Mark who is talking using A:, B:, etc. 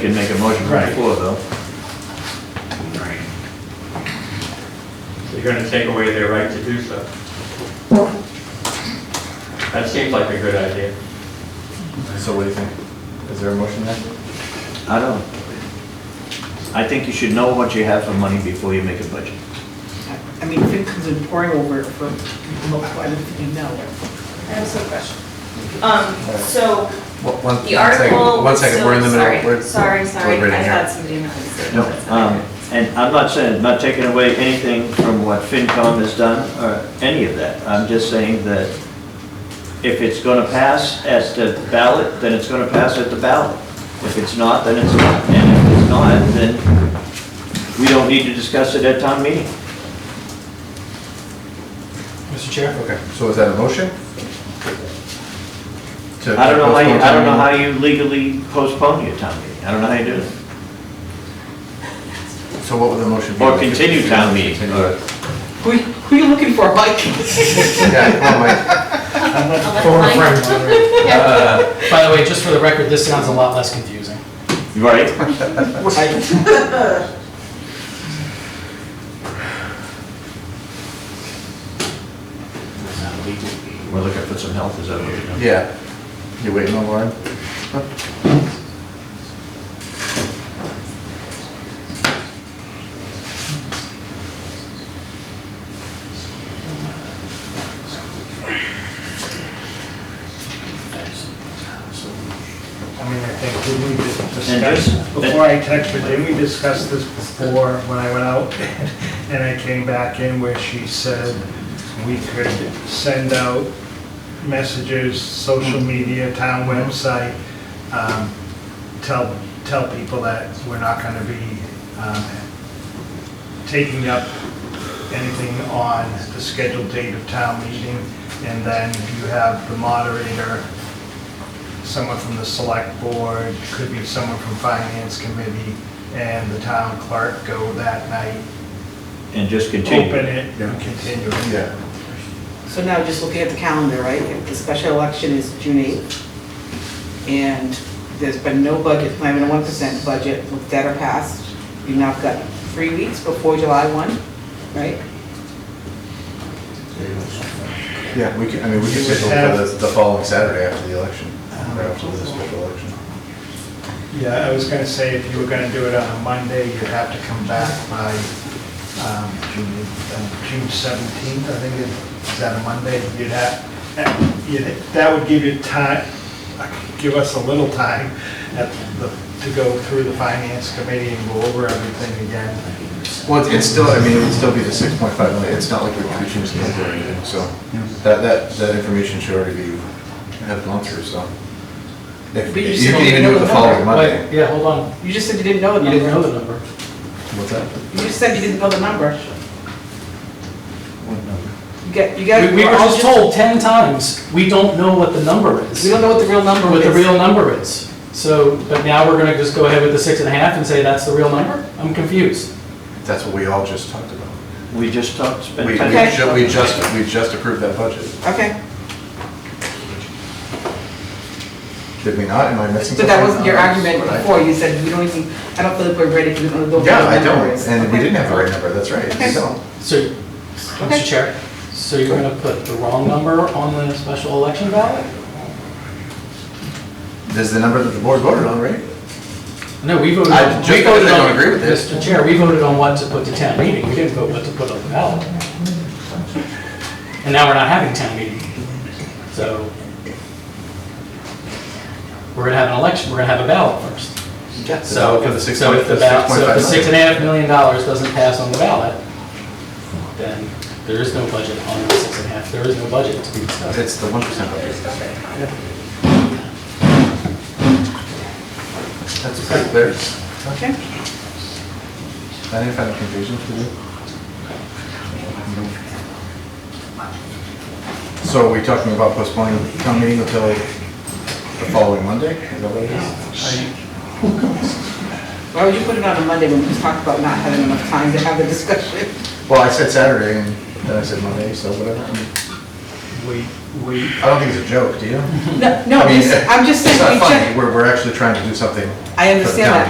A: can make a motion from the
B: Right.
A: floor, though.
B: Right. So you're gonna take away their right to do so. That seems like a good idea.
C: So what do you think? Is there a motion there?
A: I don't. I think you should know what you have for money before you make a budget.
D: I mean, FinCom's been pouring over it for, I don't think you know.
E: I have some question. Um, so
C: One- one-
E: the
C: one second,
E: article.
C: One second, we're in the middle. we're-
E: Sorry, sorry,
C: we're
E: sorry.
C: deliberating
E: I
C: here.
E: thought somebody in the audience.
A: No, um, and I'm not saying, not taking away anything from what FinCom has done, or any of that. I'm just saying that if it's gonna pass as the ballot, then it's gonna pass at the ballot. If it's not, then it's not, and if it's not, then we don't need to discuss it at town meeting.
C: Mr. Chair? Okay, so is that a motion? To-
A: I don't know how you, I don't know how
C: postpone
A: you legally postpone your town meeting. I don't know how you do it.
C: town meeting? So what would the motion be?
A: Or continue town meeting, or-
D: Who, who are you looking for, Mike?
C: Yeah, come on, Mike.
F: Former friend. Uh, By the way, just for the record, this sounds a lot less confusing.
A: right? We're looking for some help, is that what you're doing?
C: Yeah. You waiting on Lauren?
G: I mean, I think, did we just
A: And
G: discuss,
A: just-
G: before I text her, did we discuss this before when I went out? And I came back in where she said we could send out messages, social media, town website, um, tell, tell people that we're not gonna be, um, taking up anything on the scheduled date of town meeting. And then you have the moderator someone from the select board, could be someone from finance committee, and the town clerk go that night,
A: And just continue.
G: open it, and continue it.
C: Yeah.
D: So now, just looking at the calendar, right, the special election is June 8th, and there's been no budget, not even a 1% budget, with that are passed. You've now got three weeks before July 1, right?
C: Yeah, we can, I mean, we can
G: You would
C: schedule for
G: have-
C: the, the following Saturday after the election, or after the special election.
G: Yeah, I was gonna say, if you were gonna do it on a Monday, you'd have to come back by um, June uh, June 17th, I think, it- is that a Monday? You'd have, you'd- that would give you time, give us a little time at the- to go through the finance committee and go over everything again.
C: Well, it's- it's still, I mean, it would still be the six point five million, it's not like we're reaching this number or anything, so that, that, that information should already be, have gone through, so. If-
D: But you
C: You
D: still
C: can
D: don't
C: even
D: know
C: do it the
D: the
C: following
D: number.
C: Monday.
F: Wait, yeah, hold on.
D: You just said you didn't know the
F: You
D: number.
F: didn't know the number.
C: What's that?
D: You just said you didn't know the number.
A: What number?
D: You got, you got.
F: We we were just told 10 times, we don't know what the number is.
D: We don't know what the real number is.
F: What the real number is. So, but now we're gonna just go ahead with the six and a half and say that's the real number? I'm confused.
C: That's what we all just talked about.
A: We just talked,
C: We,
A: spent
C: we
A: time.
D: Okay.
C: ju- we just, we just approved that budget,
D: Okay,
C: did we not? Am I missing
D: so
C: something?
D: that wasn't your
C: No, that's
D: argument
C: what I-
D: before, you said we don't even, I don't feel like we're ready, we don't know the real number
C: Yeah, I don't,
D: is.
C: and we
D: Okay.
C: didn't have the right number, that's right,
D: Okay.
C: so.
F: So,
D: Okay.
F: Mr. Chair, so you're gonna put the wrong number on the special election ballot?
C: There's the number that the board voted on, right?
F: No, we voted.
C: I-
F: on-
C: just
F: we voted
C: because I don't
F: on-
C: agree with this.
F: Mr. Chair, we voted on what to put to town meeting, we didn't vote what to put on the ballot. And now we're not having town meeting, so we're gonna have an election, we're gonna have a ballot first. So,
C: For the
F: if-
C: six
F: so
C: point-
F: if the
C: the
F: ballot, so if the
C: 6.5
F: six and a half million dollars doesn't pass on the ballot, then there is no budget on the six and a half, there is no budget to be discussed.
C: It's the one percent budget. That's pretty clear.
D: Okay.
C: I didn't find it confusing for you. So are we talking about postponing town meeting until the following Monday? Is that what it is?
D: Why would you put it on a Monday when we just talked about not having enough time to have the discussion?
C: Well, I said Saturday and then I said Monday, so whatever. I
G: We, we,
C: don't think it's a joke, do you?
D: No, no,
C: I mean,
D: I'm just saying,
C: It's
D: we
C: not funny,
D: just,
C: we're, we're actually trying to do something.
D: I
C: for the
D: understand
C: town.
D: that,